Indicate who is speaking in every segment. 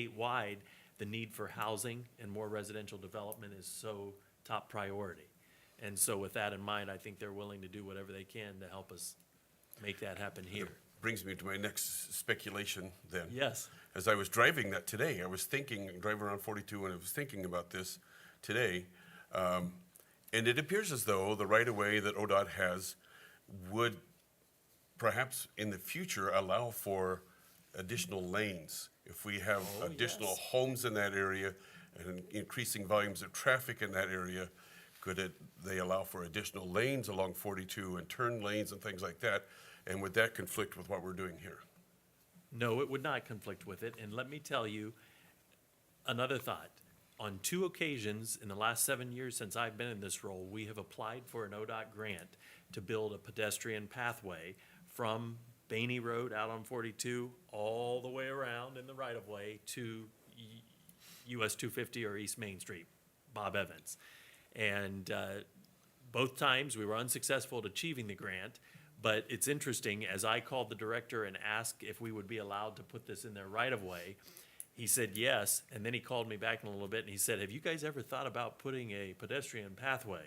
Speaker 1: statewide, the need for housing and more residential development is so top priority. And so with that in mind, I think they're willing to do whatever they can to help us make that happen here.
Speaker 2: Brings me to my next speculation then.
Speaker 1: Yes.
Speaker 2: As I was driving that today, I was thinking, driving around 42, and I was thinking about this today. Um, and it appears as though the right of way that ODOT has would perhaps in the future allow for additional lanes. If we have additional homes in that area and increasing volumes of traffic in that area, could it, they allow for additional lanes along 42 and turn lanes and things like that? And would that conflict with what we're doing here?
Speaker 1: No, it would not conflict with it. And let me tell you another thought. On two occasions in the last seven years since I've been in this role, we have applied for an ODOT grant to build a pedestrian pathway from Bainey Road out on 42 all the way around in the right of way to y- US 250 or East Main Street, Bob Evans. And uh, both times we were unsuccessful at achieving the grant. But it's interesting, as I called the director and asked if we would be allowed to put this in their right of way, he said yes. And then he called me back in a little bit and he said, Have you guys ever thought about putting a pedestrian pathway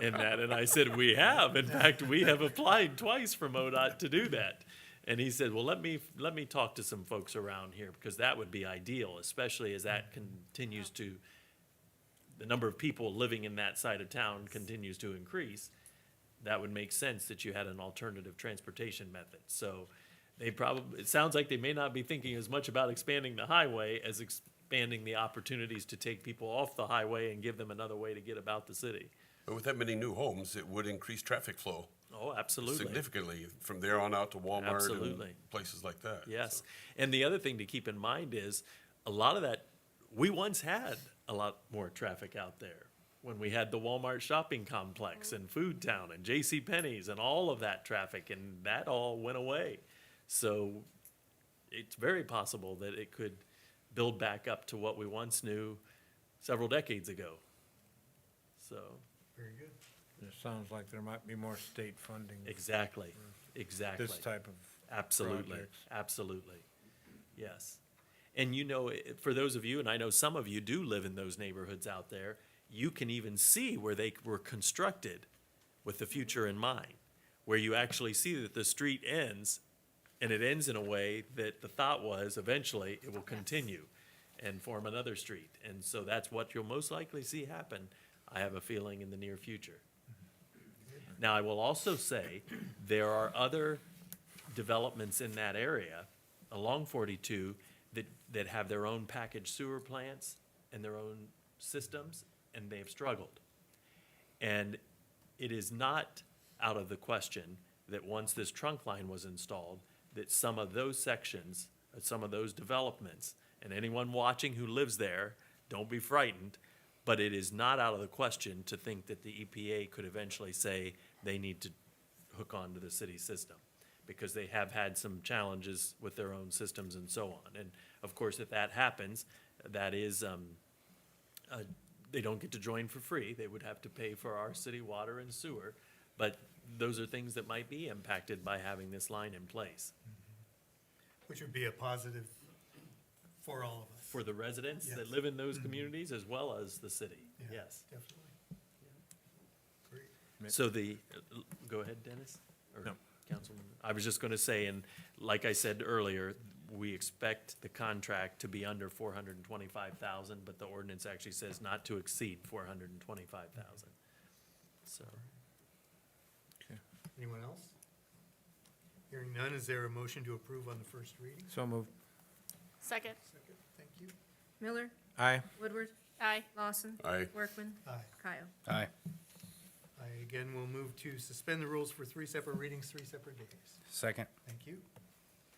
Speaker 1: in that? And I said, We have. In fact, we have applied twice for MoDOT to do that. And he said, "Well, let me let me talk to some folks around here because that would be ideal, especially as that continues to the number of people living in that side of town continues to increase. That would make sense that you had an alternative transportation method. So they probably it sounds like they may not be thinking as much about expanding the highway as expanding the opportunities to take people off the highway and give them another way to get about the city.
Speaker 2: But with that many new homes, it would increase traffic flow
Speaker 1: Oh, absolutely.
Speaker 2: significantly from there on out to Walmart
Speaker 1: Absolutely.
Speaker 2: and places like that.
Speaker 1: Yes. And the other thing to keep in mind is a lot of that, we once had a lot more traffic out there when we had the Walmart shopping complex and Food Town and J.C. Penney's and all of that traffic, and that all went away. So it's very possible that it could build back up to what we once knew several decades ago. So.
Speaker 3: Very good. It sounds like there might be more state funding for
Speaker 1: Exactly, exactly.
Speaker 3: this type of,
Speaker 1: Absolutely,
Speaker 3: projects.
Speaker 1: absolutely, yes. And you know, i- for those of you, and I know some of you do live in those neighborhoods out there, you can even see where they were constructed with the future in mind, where you actually see that the street ends, and it ends in a way that the thought was eventually it will continue and form another street. And so that's what you'll most likely see happen, I have a feeling, in the near future. Now, I will also say, there are other developments in that area along 42 that, that have their own packaged sewer plants and their own systems, and they have struggled. And it is not out of the question that once this trunk line was installed, that some of those sections, uh, some of those developments, and anyone watching who lives there, don't be frightened, but it is not out of the question to think that the EPA could eventually say they need to hook onto the city system, because they have had some challenges with their own systems and so on. And of course, if that happens, that is, um, uh, they don't get to join for free. They would have to pay for our city water and sewer. But those are things that might be impacted by having this line in place.
Speaker 4: Which would be a positive for all of us.
Speaker 1: For the residents that
Speaker 4: Yes. Mm-hmm.
Speaker 1: live in those communities as well as the city,
Speaker 4: Yeah,
Speaker 1: yes.
Speaker 4: Definitely. Great.
Speaker 1: So the, go ahead, Dennis? or
Speaker 3: No.
Speaker 1: Councilman, I was just gonna say, and like I said earlier, we expect the contract to be under four hundred and twenty-five thousand, but the ordinance actually says not to exceed four hundred and twenty-five thousand. So,
Speaker 4: Anyone else? Hearing none, is there a motion to approve on the first reading?
Speaker 3: so moved.
Speaker 5: Second.
Speaker 4: Second, thank you.
Speaker 6: Miller,
Speaker 3: Aye.
Speaker 6: Woodward,
Speaker 5: Aye.
Speaker 6: Lawson.
Speaker 2: Aye.
Speaker 6: Workman,
Speaker 4: Aye.
Speaker 6: Kyle.
Speaker 3: Aye.
Speaker 4: I again will move to suspend the rules for three separate readings, three separate days.
Speaker 3: Second.
Speaker 4: Thank you.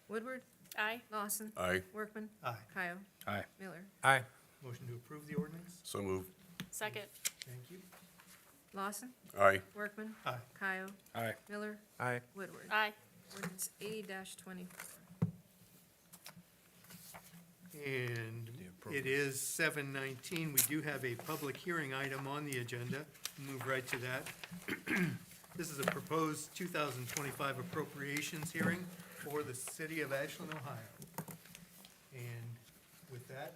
Speaker 6: Woodward,
Speaker 5: Aye.
Speaker 6: Lawson,
Speaker 2: Aye,
Speaker 6: Workman,
Speaker 4: Aye.
Speaker 6: Kyle,
Speaker 3: Aye.
Speaker 6: Miller,
Speaker 3: Aye.
Speaker 4: Motion to approve the ordinance?
Speaker 2: so moved.
Speaker 5: Second.
Speaker 4: Thank you.
Speaker 6: Lawson,
Speaker 2: Aye,
Speaker 6: Workman,
Speaker 4: Aye.
Speaker 6: Kyle,
Speaker 3: Aye.
Speaker 6: Miller,
Speaker 3: Aye.
Speaker 6: Woodward.
Speaker 5: Aye.
Speaker 6: Ordinance eighty twenty-four.
Speaker 4: And it is seven nineteen. We do have a public hearing item on the agenda. Move right to that. This is a proposed two thousand twenty-five appropriations hearing for the city of Ashland, Ohio.